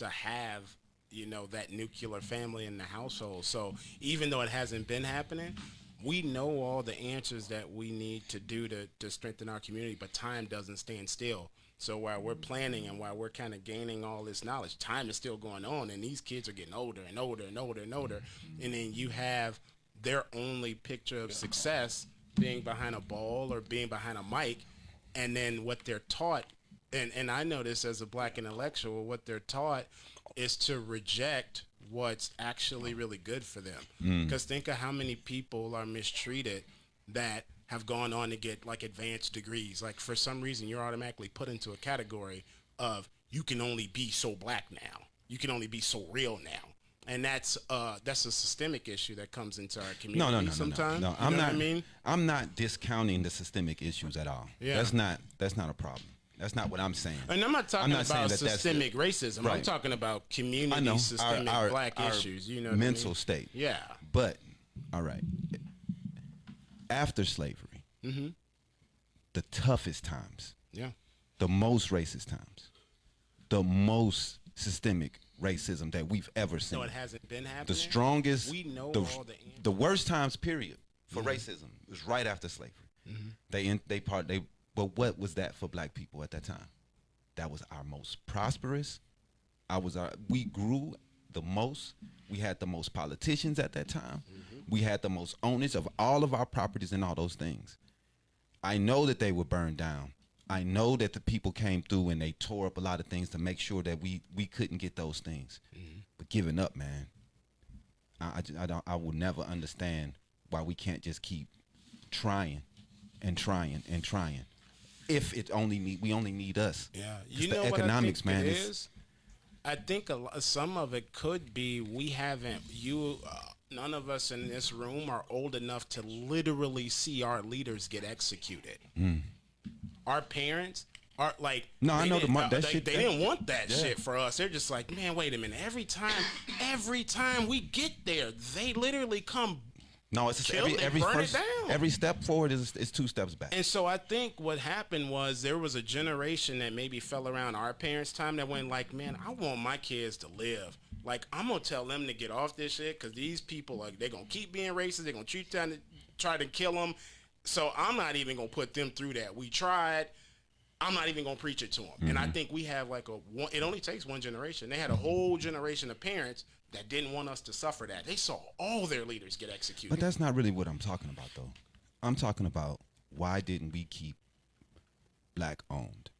to have you know that nuclear family in the household. So even though it hasn't been happening, we know all the answers that we need to do to, to strengthen our community, but time doesn't stand still. So while we're planning and while we're kind of gaining all this knowledge, time is still going on, and these kids are getting older and older and older and older. And then you have their only picture of success being behind a ball or being behind a mic, and then what they're taught. And, and I know this as a black intellectual, what they're taught is to reject what's actually really good for them. Mm. Because think of how many people are mistreated that have gone on to get like advanced degrees. Like for some reason, you're automatically put into a category of you can only be so black now. You can only be so real now. And that's uh that's a systemic issue that comes into our community. No, no, no, no, sometimes. no, no. You I'm know not. What I mean, am not discounting the systemic issues at all. Yeah. That's not. That's not a problem. That's not what I'm saying. and I'm not talking not saying about that that's the- systemic racism. I'm Right. talking about community I know systemic black issues. You know, what I mean? mental state. Yeah, But all right, after slavery, Mm-hmm. the toughest times, yeah. the most racist times, the most systemic racism that we've ever seen. So it hasn't been happening. the strongest We know the, all the answers. Mm-hmm. the worst times period for racism was right after slavery they in, they part they but what was that for black people at that time that was our most prosperous i was our we grew the most we had the most politicians at that time Mm-hmm. we had the most owners of all of our properties and all those things I know that they were burned down. I know that the people came through and they tore up a lot of things to make sure that we we couldn't get those things. Mm-hmm. But giving up, man, I I, ju- I don't I will never understand why we can't just keep trying and trying and trying. If it only need we only need us. Yeah, 'Cause you the know economics, what I man. think it is- is. I think a lo- some of it could be we haven't you. Uh, none of us in this room are old enough to literally see our leaders get executed. Our parents are like Hmm. No, I they know the didn't- mon- that they, shit- they that- didn't want that yeah. shit for us. They're just like, man, wait a minute. Every time, every time we get there, they literally come no, it's just Kill every it, every burn it first, down. every step forward is is two steps back. And so I think what happened was there was a generation that maybe fell around our parents' time that went like, man, I want my kids to live. Like I'm gonna tell them to get off this shit because these people are they're gonna keep being racist. They're gonna keep trying to try to kill them. So I'm not even gonna put them through that. We tried. I'm not even gonna preach it to them. And I think we have like a one. It only takes one generation. They had a whole generation of parents that didn't want us to suffer that. They saw all their leaders get executed. But that's not really what I'm talking about, though. I'm talking about why didn't we keep black owned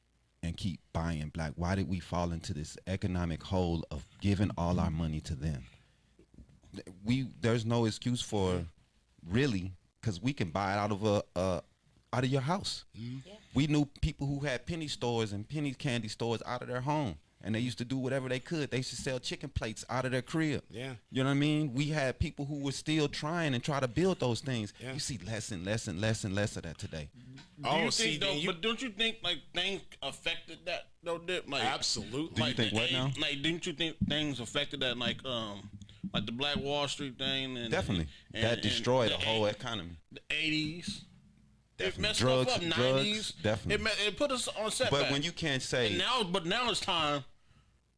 and keep buying black? Why did we fall into this economic hole of giving all our money to them? Th- We there's no excuse for really because we can buy it out of a, a out of your house. Mm-hmm. We knew people who had penny stores and penny candy stores out of their home, and they used to do whatever they could. They used to sell chicken plates out of their crib. Yeah. You know what I mean? We had people who were still trying and try to build those things. Yeah. You see less and less and less and less of that today. Do you oh, think, see, though, then you but don't you think like things affected that though? Dip? Like Absolutely. Do you think the what thing- now? Like, didn't you think things affected that? Like, um, like the Black Wall Street thing, and Definitely. and- that and destroyed the a whole eight- economy. the eighties. It Definitely. messed Drugs- stuff up. drugs, Nineties. definitely. It, me- it put us on setback. But when you can't And say now, but now it's time.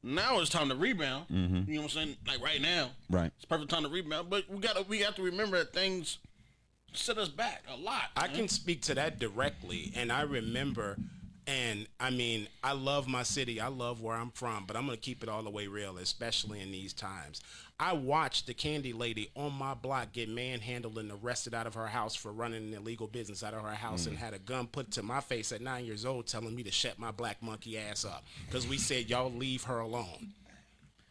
Now it's time to rebound. You know what I'm saying? Like right now, Mm-hmm. Right. It's perfect time to rebound. But we gotta, we have to remember that things set us back a lot. I man. can speak to that directly, and I remember, and I mean, I love my city, I love where I'm from, but I'm gonna keep it all the way real, especially in these times. I watched the candy lady on my block get manhandled and arrested out of her house for running an illegal business out of her house Mm. and had a gun put to my face at nine years old, telling me to shut my black monkey ass up because we said y'all leave her alone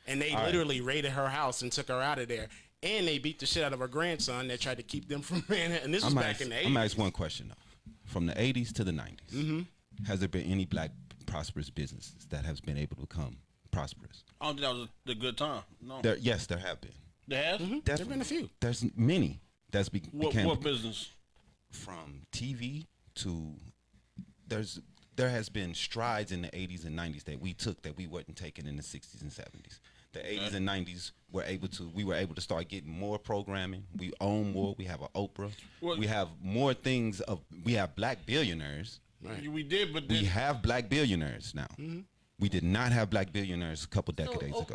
and they literally raided her house and took her out of there. And they beat the shit out of her grandson that tried to keep them from man. And this was I'm back ask, in the I'm gonna eighties. ask one question though. From the 80s to the 90s, Mm-hmm. has there been any black prosperous businesses that has been able to become prosperous? I don't think that was a, the good time. No, There, yes, there have been. they have. There's There've been a few. There's many that's be, What, became what business? from TV to there's there has been strides in the 80s and 90s that we took that we weren't taking in the 60s and 70s. The 80s and 90s were able to we were able to start getting more programming. We own more. We have an Oprah. Well- we have more things of we have black billionaires. We did, but then We have black billionaires now. We did not have black billionaires a couple So, decades o- ago.